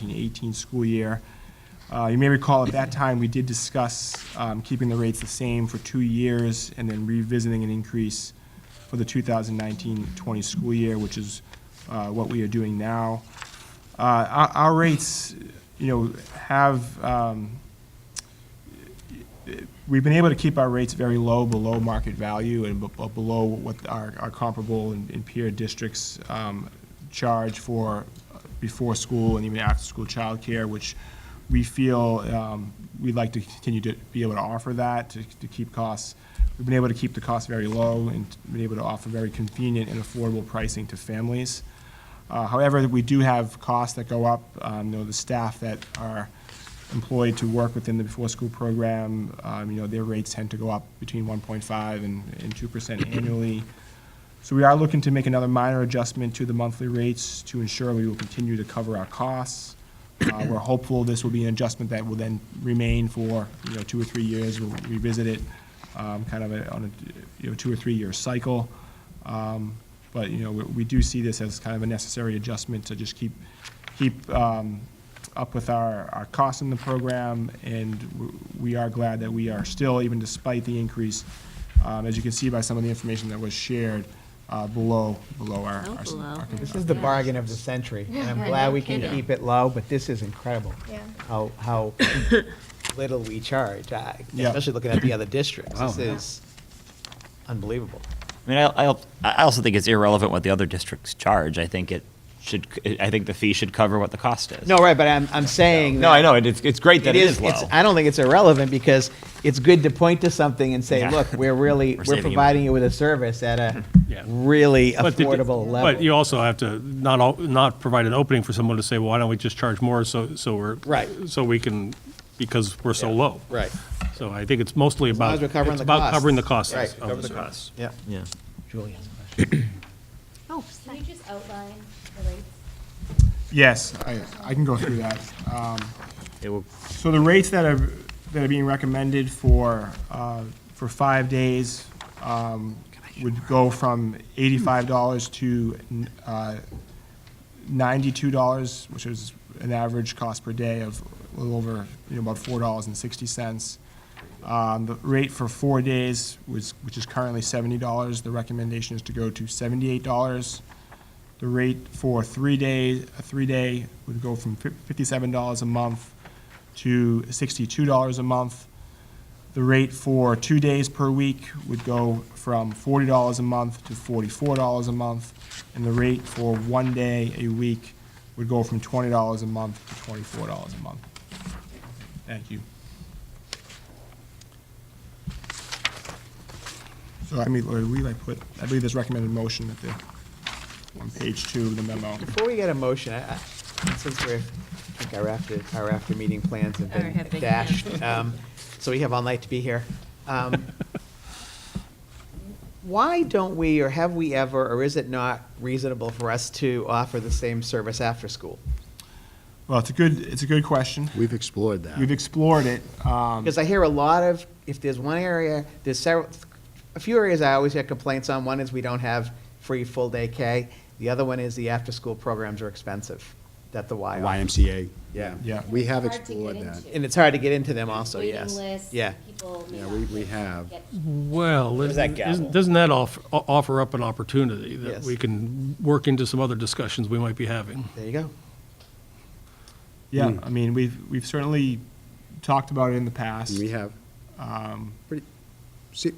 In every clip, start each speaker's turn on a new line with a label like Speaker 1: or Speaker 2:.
Speaker 1: 17-18 school year. Uh, You may recall, at that time, we did discuss um, keeping the rates the same for two years and then revisiting an increase for the 2019-20 school year, which is uh, what we are doing now. Uh, Our our rates, you know, have, um, we've been able to keep our rates very low, below market value and be- be- below what our our comparable and and peer districts um, charge for uh, before school and even after-school childcare, which we feel um, we'd like to continue to be able to offer that, to to keep costs. We've been able to keep the costs very low and been able to offer very convenient and affordable pricing to families. Uh, However, we do have costs that go up. Um, You know, the staff that are employed to work within the before-school program, um, you know, their rates tend to go up between 1.5 and and 2% annually. So we are looking to make another minor adjustment to the monthly rates to ensure we will continue to cover our costs. Uh, We're hopeful this will be an adjustment that will then remain for, you know, two or three years. We'll revisit it, um, kind of a- on a, you know, two or three-year cycle. Um, But, you know, we we do see this as kind of a necessary adjustment to just keep, keep um, up with our, our costs in the program, and w- we are glad that we are still, even despite the increase, um, as you can see by some of the information that was shared, uh, below, below our.
Speaker 2: Oh,
Speaker 1: our-
Speaker 2: below.
Speaker 1: our-
Speaker 2: This
Speaker 3: This is the bargain of the century, and I'm
Speaker 4: Yeah,
Speaker 3: glad
Speaker 4: no
Speaker 3: we can
Speaker 4: kidding.
Speaker 3: keep it low, but this is incredible.
Speaker 4: Yeah.
Speaker 3: How, how little we charge, uh,
Speaker 1: Yeah.
Speaker 3: especially looking at the other districts. This
Speaker 5: Wow.
Speaker 3: is unbelievable.
Speaker 5: I mean, I, I, I also think it's irrelevant what the other districts charge. I think it should. I think the fee should cover what the cost is.
Speaker 3: No, right, but I'm, I'm saying.
Speaker 5: no,
Speaker 3: that
Speaker 5: I know. It, it's it's great that it is, low.
Speaker 3: it's- I don't think it's irrelevant, because it's good to point to something and say,
Speaker 5: Yeah.
Speaker 3: look, we're really,
Speaker 5: We're
Speaker 3: we're
Speaker 5: saving you
Speaker 3: providing you with a service at a
Speaker 6: Yeah.
Speaker 3: really
Speaker 6: But the-
Speaker 3: affordable
Speaker 6: But you
Speaker 3: level.
Speaker 6: also have to not, al- not provide an opening for someone to say, well, why don't we just charge more so, so we're.
Speaker 3: Right.
Speaker 6: So we can, because we're so low.
Speaker 3: Right,
Speaker 6: So I think it's mostly
Speaker 3: long
Speaker 6: about.
Speaker 3: as we're covering
Speaker 6: it's
Speaker 3: the
Speaker 6: about
Speaker 3: costs.
Speaker 6: covering the costs.
Speaker 3: Right,
Speaker 6: of
Speaker 3: cover the
Speaker 6: service.
Speaker 3: costs. yeah.
Speaker 5: yeah.
Speaker 3: Julie has a question.
Speaker 2: Oh,
Speaker 4: Can you just outline the rates?
Speaker 1: Yes, I, I can go through that. Um,
Speaker 5: It will,
Speaker 1: So the rates that are, that are being recommended for, uh, for five days um, would go from eighty-five dollars to uh, ninety-two dollars, which is an average cost per day of a little over, you know, about four dollars and sixty cents. Um, The rate for four days was, which is currently seventy dollars, the recommendation is to go to seventy-eight dollars. The rate for three days, a three-day would go from fif- fifty-seven dollars a month to sixty-two dollars a month. The rate for two days per week would go from forty dollars a month to forty-four dollars a month, and the rate for one day a week would go from twenty dollars a month to twenty-four dollars a month. Thank you. So I mean, we like put, I believe there's recommended motion at the, on page two of the memo.
Speaker 3: Before we get a motion, I, I- since we're, I think our after, our after meeting plans have
Speaker 2: Or have
Speaker 3: been
Speaker 2: been
Speaker 3: dashed,
Speaker 2: canceled.
Speaker 3: um, so we have all night to be here. Um, Why don't we, or have we ever, or is it not reasonable for us to offer the same service after school?
Speaker 1: Well, it's a good, it's a good question.
Speaker 7: We've explored that.
Speaker 1: We've explored it. um,
Speaker 3: Because I hear a lot of, if there's one area, there's several, a few areas I always get complaints on. One is we don't have free full-day K. The other one is the after-school programs are expensive, that the Y offers.
Speaker 7: YMCA.
Speaker 3: Yeah.
Speaker 1: Yeah.
Speaker 7: We have
Speaker 4: Hard to get
Speaker 7: explored that.
Speaker 4: into.
Speaker 3: And it's hard to get into them also, yes.
Speaker 4: Waiting lists,
Speaker 3: Yeah.
Speaker 4: people may
Speaker 7: Yeah,
Speaker 4: not
Speaker 7: we- we
Speaker 4: get-
Speaker 7: have.
Speaker 4: get-
Speaker 6: Well,
Speaker 5: There's that
Speaker 6: isn't-
Speaker 5: gavel.
Speaker 6: doesn't that off- o- offer up an opportunity that
Speaker 3: Yes. Oh,
Speaker 6: we can work into some other discussions we might be having?
Speaker 3: There you go.
Speaker 1: Yeah,
Speaker 7: Hmm.
Speaker 1: I mean, we've, we've certainly talked about it in the past. um,
Speaker 7: We have. Pretty, se-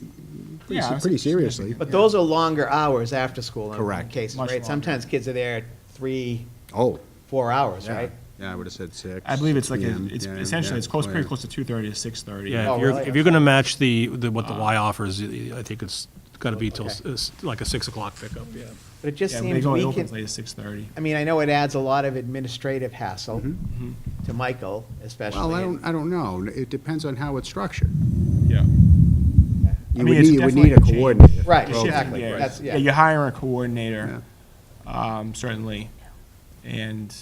Speaker 7: pretty
Speaker 1: Yeah,
Speaker 7: se- pretty seriously.
Speaker 3: But those are longer hours after school in- in
Speaker 7: Correct.
Speaker 3: cases,
Speaker 1: Much
Speaker 3: right?
Speaker 1: longer.
Speaker 3: Sometimes kids are there three,
Speaker 7: Oh,
Speaker 3: four hours,
Speaker 7: yeah.
Speaker 3: right?
Speaker 7: Yeah, I would have said six.
Speaker 1: I believe it's like, a-
Speaker 7: 6
Speaker 1: it's
Speaker 7: PM,
Speaker 1: essentially,
Speaker 7: yeah,
Speaker 1: it's close, pretty
Speaker 7: yeah.
Speaker 1: close to two thirty to six thirty.
Speaker 6: Yeah,
Speaker 3: Oh,
Speaker 6: if you're,
Speaker 3: really? Ah.
Speaker 6: if you're going to match the, the- what the Y offers, I think it's got to be till, s-
Speaker 3: Okay.
Speaker 6: s- like a 6 o'clock pickup, yeah.
Speaker 3: But it just
Speaker 1: Yeah, they
Speaker 3: seems
Speaker 1: go, it
Speaker 3: we
Speaker 1: opens
Speaker 3: can,
Speaker 1: late as six thirty.
Speaker 3: I mean, I know it adds a lot of administrative hassle to Michael especially.
Speaker 7: Mm-hmm. Well, I don't, I don't know. It depends on how it's structured.
Speaker 1: Yeah.
Speaker 7: You
Speaker 1: mean, it's
Speaker 7: would need, you would
Speaker 1: definitely
Speaker 7: need
Speaker 1: a
Speaker 7: a
Speaker 1: change.
Speaker 7: coordinator.
Speaker 3: Right,
Speaker 1: Shift,
Speaker 3: exactly.
Speaker 1: yeah.
Speaker 3: That's,
Speaker 1: Yeah,
Speaker 3: yeah.
Speaker 1: you hire a coordinator, um, certainly, and,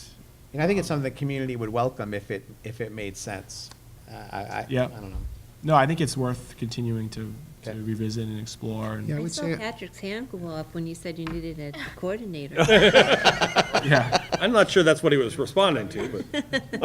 Speaker 3: And I think it's something the community would welcome if it, if it made sense. Uh, I, I, I
Speaker 1: Yeah.
Speaker 3: don't know.
Speaker 1: no, I think it's worth continuing to, to
Speaker 3: Okay.
Speaker 1: revisit and explore,
Speaker 7: Yeah.
Speaker 1: and,
Speaker 7: I
Speaker 2: I
Speaker 7: would
Speaker 2: saw
Speaker 7: say-
Speaker 2: Patrick's hand go up when you said you needed a coordinator.
Speaker 1: yeah.
Speaker 6: I'm not sure that's what he was responding to, but.